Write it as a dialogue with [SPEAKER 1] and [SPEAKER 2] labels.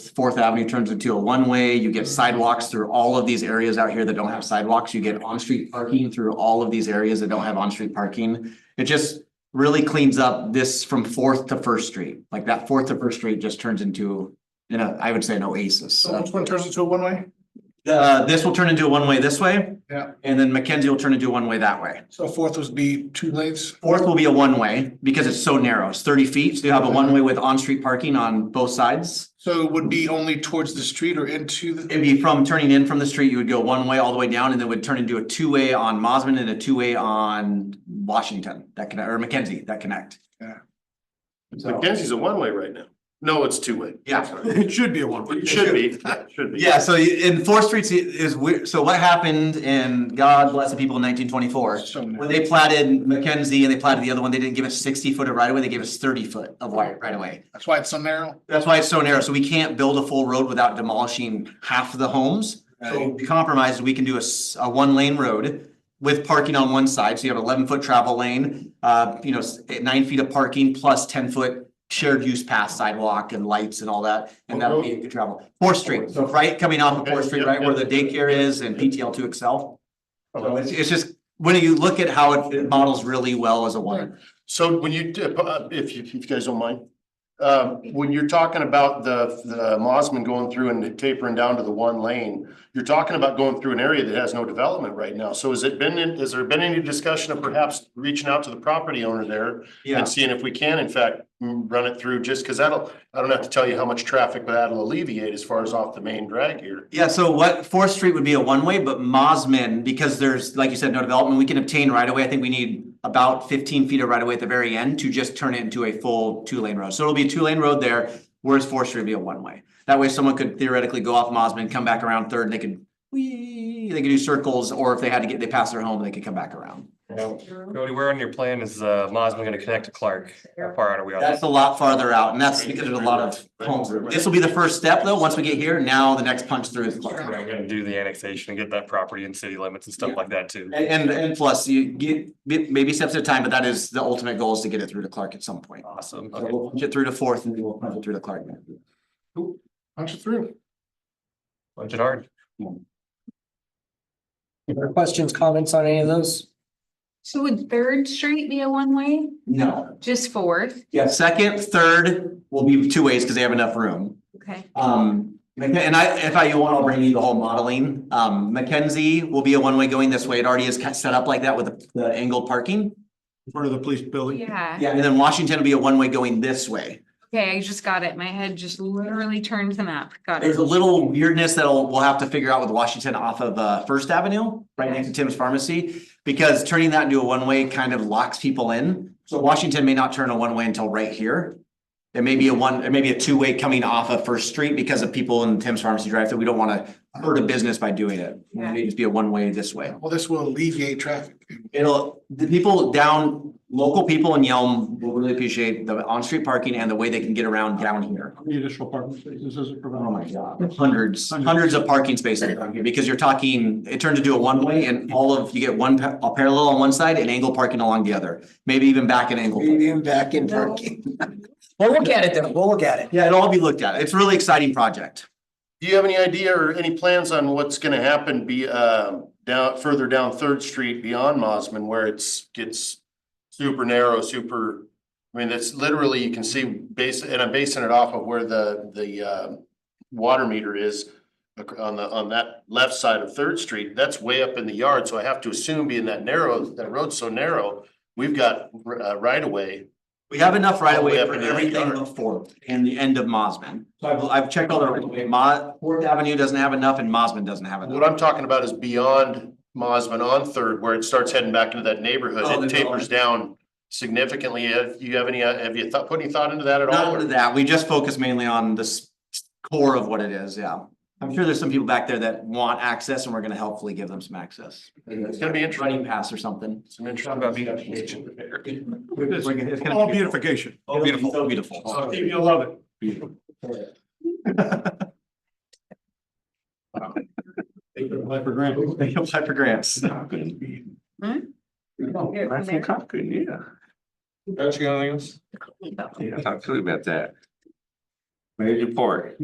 [SPEAKER 1] Fourth Avenue turns into a one-way, you get sidewalks through all of these areas out here that don't have sidewalks, you get on-street parking through all of these areas that don't have on-street parking. It just really cleans up this from Fourth to First Street, like that Fourth to First Street just turns into, you know, I would say an oasis.
[SPEAKER 2] So
[SPEAKER 1] of-
[SPEAKER 2] which one turns into a one-way?
[SPEAKER 1] Uh, this will turn into a one-way this way.
[SPEAKER 2] Yeah.
[SPEAKER 1] And then Mackenzie will turn into a one-way that way.
[SPEAKER 2] So fourth would be two lanes.
[SPEAKER 1] Fourth will be a one-way because it's so narrow. It's thirty feet, so you have a one-way with on-street parking on both sides.
[SPEAKER 2] So it would be only towards the street or into the,
[SPEAKER 1] It'd be from turning in from the street, you would go one-way all the way down and then would turn into a two-way on Mosman and a two-way on Washington that connect, or Mackenzie that connect.
[SPEAKER 2] Yeah.
[SPEAKER 1] So,
[SPEAKER 3] Mackenzie's a one-way right now. No, it's two-way.
[SPEAKER 1] Yeah.
[SPEAKER 3] Sorry.
[SPEAKER 2] it should be a one-way.
[SPEAKER 3] It should be, It should be.
[SPEAKER 1] yeah, so in Fourth Street is weird. So what happened in, God bless the people in nineteen twenty-four?
[SPEAKER 2] So
[SPEAKER 1] When
[SPEAKER 2] narrow.
[SPEAKER 1] they platted Mackenzie and they platted the other one, they didn't give us sixty foot of right away. they gave us thirty foot of wide right away.
[SPEAKER 2] That's why it's so narrow.
[SPEAKER 1] That's why it's so narrow, so we can't build a full road without demolishing half of the homes. So the compromise, we can do a, s- a one lane road with parking on one side, so you have eleven foot travel lane. Uh, you know, s- eh, nine feet of parking plus ten foot shared use path sidewalk and lights and all that, and that'll be good travel. Fourth Street, so right coming off of
[SPEAKER 3] Okay,
[SPEAKER 1] Fourth Street,
[SPEAKER 3] yep,
[SPEAKER 1] right where the
[SPEAKER 3] yep.
[SPEAKER 1] daycare is and PTL two Excel. So
[SPEAKER 3] Okay.
[SPEAKER 1] it's, it's just, when you look at how it- it models really well as a one.
[SPEAKER 3] So when you, uh, if you, if you guys don't mind, um, when you're talking about the, the Mosman going through and tapering down to the one lane, you're talking about going through an area that has no development right now. So has it been, in- has there been any discussion of perhaps reaching out to the property owner there?
[SPEAKER 1] Yeah.
[SPEAKER 3] And seeing if we can in fact mm, run it through, just because that'll, I don't have to tell you how much traffic that'll alleviate as far as off the main drag here.
[SPEAKER 1] Yeah, so what, Fourth Street would be a one-way, but Mosman, because there's, like you said, no development, we can obtain right away. I think we need about fifteen feet of right away at the very end to just turn it into a full two-lane road. So it'll be a two-lane road there, whereas Fourth Street would be a one-way. That way someone could theoretically go off Mosman, come back around Third, and they could, whee, they could do circles, or if they had to get, they pass their home, they could come back around.
[SPEAKER 4] Cody, where on your plan is uh Mosman gonna connect to Clark? How far out are we on?
[SPEAKER 1] That's a lot farther out, and that's because there's a lot of homes. This will be the first step, though. Once we get here, now the next punch through is Clark.
[SPEAKER 4] We're gonna do the annexation and get that property in city limits and stuff like that too.
[SPEAKER 1] And, and, and plus you get, get maybe steps at a time, but that is the ultimate goal is to get it through to Clark at some point.
[SPEAKER 4] Awesome.
[SPEAKER 1] So
[SPEAKER 4] Okay.
[SPEAKER 1] We'll punch it through to fourth and then we'll punch it through to Clark.
[SPEAKER 3] Punch it through.
[SPEAKER 4] Punch it hard.
[SPEAKER 5] Questions, comments on any of those?
[SPEAKER 6] So would Third Street be a one-way?
[SPEAKER 1] No,
[SPEAKER 6] Just Fourth?
[SPEAKER 1] yeah, second, third will be two ways because they have enough room.
[SPEAKER 6] Okay.
[SPEAKER 1] Um, and I, if I, you want, I'll bring you the whole modeling. Um, Mackenzie will be a one-way going this way. It already is kind of set up like that with the- the angled parking.
[SPEAKER 2] In front of the police building.
[SPEAKER 6] Yeah,
[SPEAKER 1] Yeah, and then Washington will be a one-way going this way.
[SPEAKER 6] okay, I just got it. My head just literally turned the map. Got
[SPEAKER 1] There's
[SPEAKER 6] it.
[SPEAKER 1] a little weirdness that'll, we'll have to figure out with Washington off of uh First Avenue, right next to Tim's Pharmacy. Because turning that into a one-way kind of locks people in. So Washington may not turn a one-way until right here. It may be a one, it may be a two-way coming off of First Street because of people in Tim's Pharmacy Drive that we don't wanna hurt a business by doing it. It may just be a one-way this way.
[SPEAKER 2] Well, this will alleviate traffic.
[SPEAKER 1] It'll, the people down, local people in Yelm will really appreciate the on-street parking and the way they can get around down here.
[SPEAKER 7] many additional parking spaces does it
[SPEAKER 1] Oh my
[SPEAKER 7] provide?
[SPEAKER 1] God, hundreds, hundreds of parking spaces down here, because you're talking, it turned into a one-way and all of, you get one pa- a parallel on one side and angle parking along the other. Maybe even back and angle. parking.
[SPEAKER 5] back in parking. We'll look at it though. We'll look at it.
[SPEAKER 1] Yeah, it'll all be looked at. It's a really exciting project.
[SPEAKER 3] Do you have any idea or any plans on what's gonna happen be, um down, further down Third Street beyond Mosman where it's, gets super narrow, super, I mean, that's literally, you can see base, and I'm basing it off of where the, the, um water meter is ac- on the, on that left side of Third Street, that's way up in the yard, so I have to assume being that narrow, that road's so narrow, we've got, uh, right of way
[SPEAKER 1] We have enough right away
[SPEAKER 3] All the
[SPEAKER 1] for
[SPEAKER 3] way up in the
[SPEAKER 1] everything
[SPEAKER 3] yard.
[SPEAKER 1] before and the end of Mosman. So I've, I've checked all the right away. Mo- Fourth Avenue doesn't have enough and Mosman doesn't have
[SPEAKER 3] What
[SPEAKER 1] enough.
[SPEAKER 3] I'm talking about is beyond Mosman on Third, where it starts heading back into that neighborhood,
[SPEAKER 1] Oh,
[SPEAKER 3] it
[SPEAKER 1] the
[SPEAKER 3] tapers
[SPEAKER 1] development.
[SPEAKER 3] down significantly. Have you have any, uh, have you thought, put any thought into that at all?
[SPEAKER 1] Not
[SPEAKER 3] or-
[SPEAKER 1] of that. We just focus mainly on this core of what it is, yeah. I'm sure there's some people back there that want access and we're gonna helpfully give them some access.
[SPEAKER 3] It's gonna be interesting.
[SPEAKER 1] running pass or something.
[SPEAKER 3] Some
[SPEAKER 4] Talk
[SPEAKER 3] interesting
[SPEAKER 4] about being
[SPEAKER 3] discussions.
[SPEAKER 7] All beautification.
[SPEAKER 1] Oh, beautiful, so beautiful.
[SPEAKER 7] I think You'll love it. Take it for granted.
[SPEAKER 1] They apply for grants.
[SPEAKER 6] Here,
[SPEAKER 8] Life in Concord, yeah.
[SPEAKER 4] Don't you got anything else?
[SPEAKER 8] Yeah, talk to me about that. Major port.